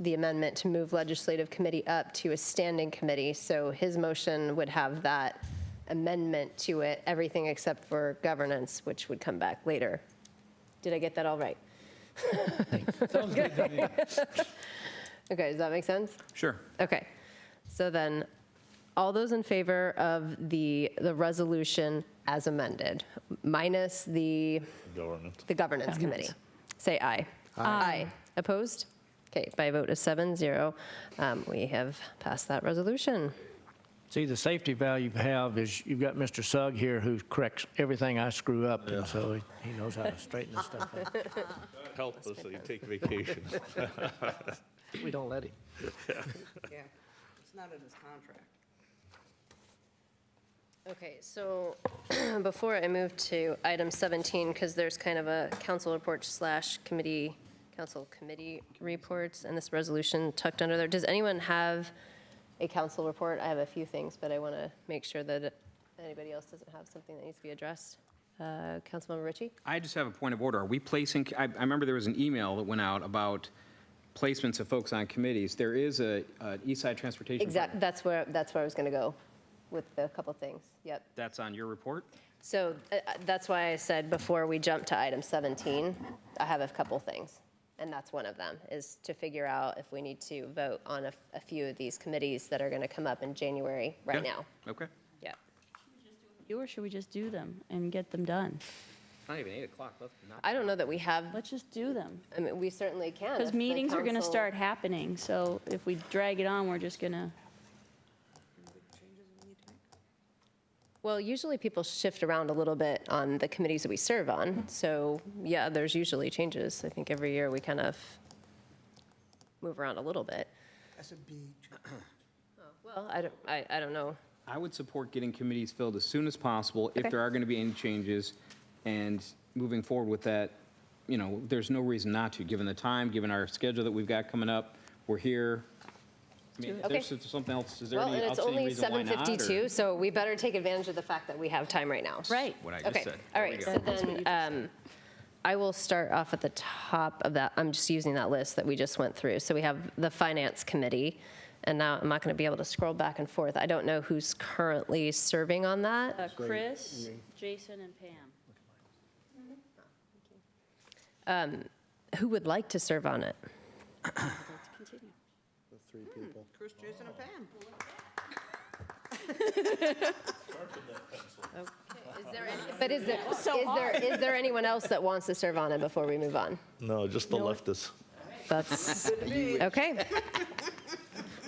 the amendment to move legislative committee up to a standing committee. So his motion would have that amendment to it, everything except for governance, which would come back later. Did I get that all right? Sounds good to me. Okay, does that make sense? Sure. Okay. So then, all those in favor of the, the resolution as amended, minus the, Governance. the governance committee, say aye. Aye. Opposed? Okay, by a vote of seven, zero, um, we have passed that resolution. See, the safety valve you have is you've got Mr. Sugg here who corrects everything I screw up, and so he- he knows how to straighten this stuff out. Help us, you take vacation. We don't let him. Yeah, it's not in his contract. Okay, so before I move to item 17, because there's kind of a council report slash committee, council committee reports, and this resolution tucked under there, does anyone have a council report? I have a few things, but I want to make sure that anybody else doesn't have something that needs to be addressed. Uh, Councilmember Ritchie? I just have a point of order. Are we placing, I, I remember there was an email that went out about placements of folks on committees. There is a, a East Side Transportation. Exactly, that's where, that's where I was going to go with a couple things. Yep. That's on your report? So uh, uh, that's why I said before we jump to item 17, I have a couple things. And that's one of them, is to figure out if we need to vote on a f- a few of these committees that are going to come up in January right Yeah. now. Okay. Yeah. do, or should we just do them and get them done? It's Not even eight o'clock. Let's not. I don't know that we have, Let's just do them. I mean, we certainly can. if Because the meetings are going to council- start happening, so if we drag it on, we're just going to, Well, usually people shift around a little bit on the committees that we serve on. So, yeah, there's usually changes. I think every year we kind of move around a little bit. That's a big. Well, I don't, I, I don't know. I would support getting committees filled as soon as possible Okay. if there are going to be any changes and moving forward with that. You know, there's no reason not to, given the time, given our schedule that we've got coming up. We're here. I mean, if Okay. there's something else, is there Well, any and it's outstanding only reason why not? or- 7:52, so we better take advantage of the fact that we have time right now. right. What I just Okay, said. all There we right, go. so then um, I will start off at the top of that. I'm just using that list that we just went through. So we have the Finance Committee, and now I'm not going to be able to scroll back and forth. I don't know who's currently serving on that. Uh, Chris, Jason, and Pam. Who would like to serve on it? Let's continue. Chris, Jason, and Pam. But is there, is there, is there anyone else that wants to serve on it before we move on? No, just the leftists. That's, okay.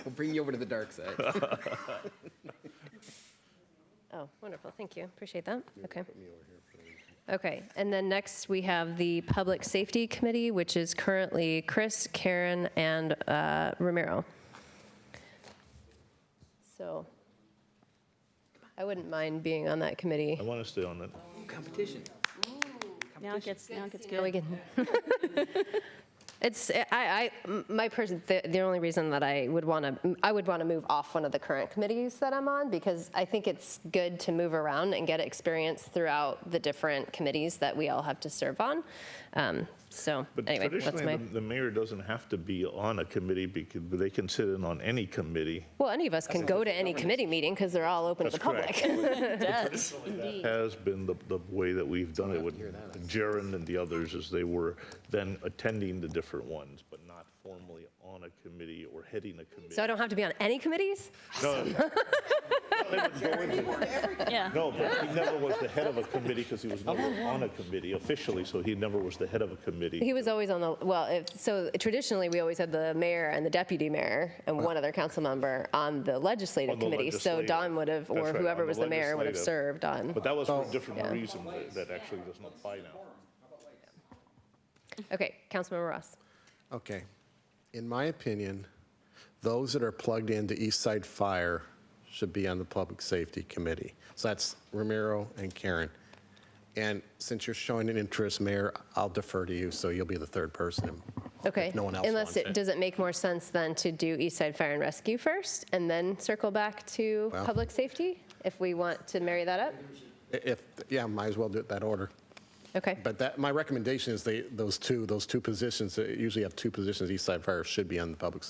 We'll bring you over to the dark side. Oh, wonderful, thank you, appreciate that, okay. Okay, and then next, we have the Public Safety Committee, which is currently Chris, Karen, and uh, Romero. So I wouldn't mind being on that committee. I want to stay on it. Competition. Now it gets, now it gets Now we good. can- It's, I, I, m- my person, the, the only reason that I would want to, I would want to move off one of the current committees that I'm on because I think it's good to move around and get experience throughout the different committees that we all have to serve on. Um, so But anyway, that's traditionally, my, the- the mayor doesn't have to be on a committee because they can sit in on any committee. well, any of us can go to any committee meeting because they're all open to the That's correct. public. It does, indeed. Has been the, the way that we've done it with Jaron and the others is they were then attending the different ones, but not formally on a committee or heading a committee. So I don't have to be on any committees? No, they would go into- Yeah. No, but he never was the head of a committee because he was never on a committee officially, so he never was the head of a committee. He was always on the, well, if, so traditionally, we always had the mayor and the deputy mayor and one other council member on the legislative On the committee. So legislative. Don would have, That's or right, whoever on the was the mayor would have legislative. served on. But that was for a different reason that- that actually doesn't apply now. Okay, Councilmember Ross. Okay. In my opinion, those that are plugged into East Side Fire should be on the Public Safety Committee. So that's Romero and Karen. And since you're showing an interest, Mayor, I'll defer to you, so you'll be the third person. Okay. If no one else Unless, wants it it. does it make more sense then to do East Side Fire and Rescue first and then circle back to Well- public safety? If we want to marry that up? I- If, yeah, might as well do it that order. Okay. But that, my recommendation is they, those two, those two positions, uh, usually have two positions, each side fire should be on the public